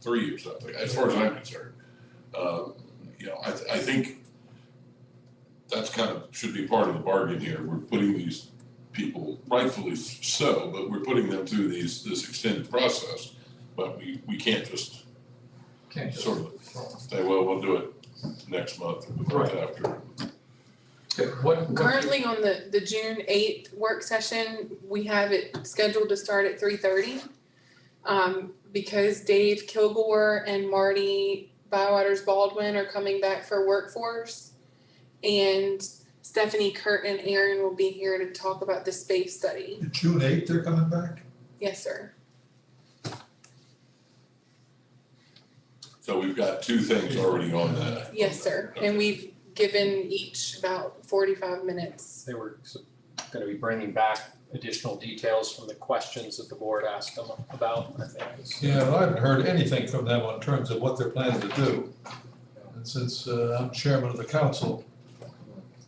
three or something, as far as I'm concerned. Um, You know, I, th- I think that's kind of, should be part of the bargain here. We're putting these people, rightfully so, but we're putting them through these, this extended process. But we, we can't just Can't just. sort of say, well, we'll do it next month or the month after. Okay, What, Currently on the, the June eighth work session, we have it scheduled to start at three thirty. Um, because Dave Kilgore and Marty Bywaters Baldwin are coming back for workforce. And Stephanie Kurt and Aaron will be here to talk about the space study. June eighth, they're coming back? Yes, sir. So we've got two things already on that. Yes, sir. And we've given each about forty-five minutes. They were s- gonna be bringing back additional details from the questions that the board asked them about, I think. is- Yeah, well, I haven't heard anything from them in terms of what they're planning to do. And since uh, I'm chairman of the council,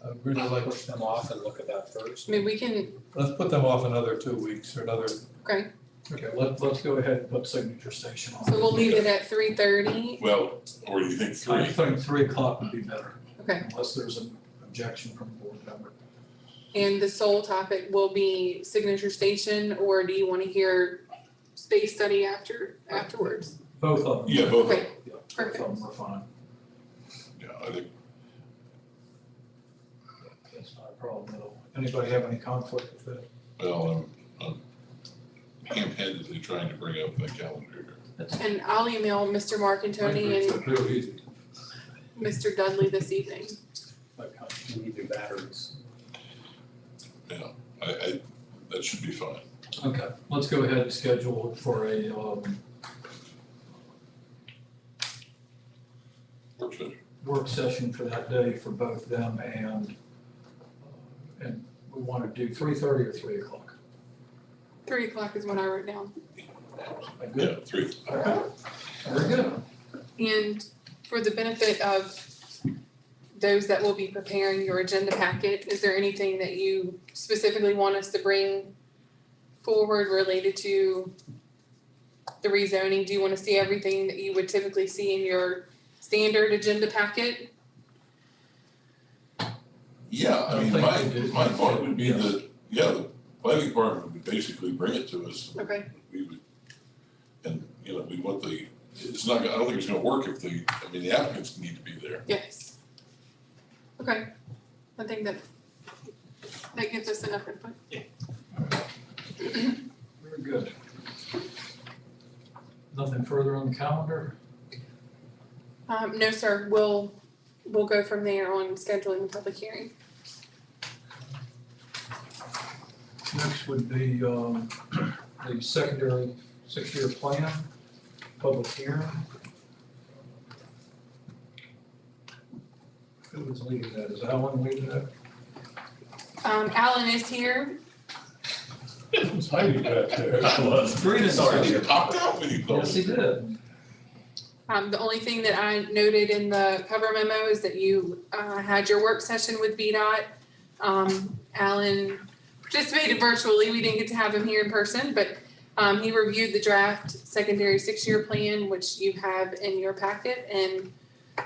I'd really like, Push them off and look at that first. I mean, we can, let's put them off another two weeks or another. Okay. Okay, let, let's go ahead and put signature station on. so we'll leave it at three thirty. Well, or you think I three? think three o'clock would be better. Okay. Unless there's an objection from a board member. And the sole topic will be signature station, or do you wanna hear space study after, afterwards? Both of them. Yeah, both. Okay, Yeah, Both perfect. of them are fine. Yeah, I think That's not a problem at all. Anybody have any conflict with that? Well, I'm, I'm ham-handedly trying to bring up the calendar. And I'll email Mr. Marcantoni and Real easy. Mr. Dudley this evening. Like, how do we do batteries? I, I, that should be fine. Okay, let's go ahead and schedule for a, um, Works good. work session for that day for both them and, uh, and we want to do three thirty or three o'clock. Three o'clock is what I wrote down. Am I good? Yeah, three. All right. Very good. And for the benefit of those that will be preparing your agenda packet, is there anything that you specifically want us to bring forward related to the rezoning? Do you want to see everything that you would typically see in your standard agenda packet? Yeah, I mean, I my, think we did. my thought would be that, yeah, the planning department would basically bring it to us. Okay. We would, and, you know, we want the, it's not, I don't think it's gonna work if the, I mean, the applicants need to be there. Yes. Okay, I think that that gives us enough input. Very good. Nothing further on the calendar? Um, no, sir, we'll, we'll go from there on scheduling the public hearing. Next would be, um, the secondary six-year plan, public hearing. Who was leading that? Is Alan leading that? Um, Alan is here, was hiding back there. Three Sorry, to start. you popped out when you Yes, closed. he did. Um, the only thing that I noted in the cover memo is that you, uh, had your work session with VDOT. Um, Alan participated virtually, we didn't get to have him here in person, but, um, he reviewed the draft secondary six-year plan, which you have in your packet, and,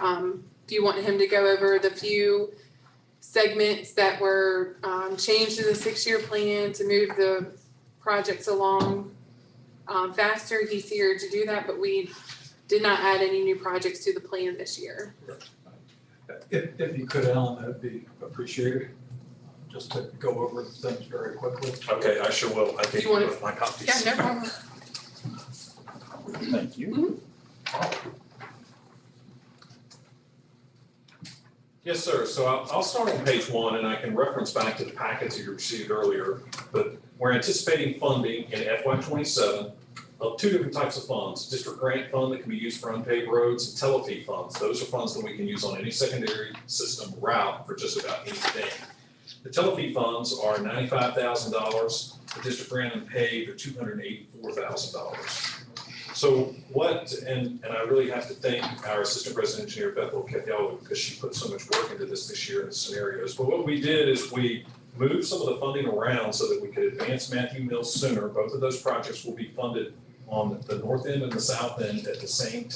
um, if you want him to go over the few segments that were, um, changed to the six-year plan to move the projects along, um, faster, he's here to do that, but we did not add any new projects to the plan this year. If, if you could, Alan, that'd be appreciated, just to go over things very quickly. Okay, I sure will. I gave You wanna- you my copies. Yeah, no problem. Thank you. Yes, sir. So I'll, I'll start on page one and I can reference back to the packets that you received earlier. But we're anticipating funding in FY twenty-seven of two different types of funds. District grant fund that can be used for unpaid roads and telefee funds. Those are funds that we can use on any secondary system route for just about anything. The telefee funds are ninety-five thousand dollars. The district grant unpaid are two hundred and eighty-four thousand dollars. So what, and, and I really have to thank our assistant resident engineer Bethel Cathyallo because she put so much work into this this year in the scenarios. But what we did is we moved some of the funding around so that we could advance Matthew Mills sooner. Both of those projects will be funded on on the north end and the south end at the same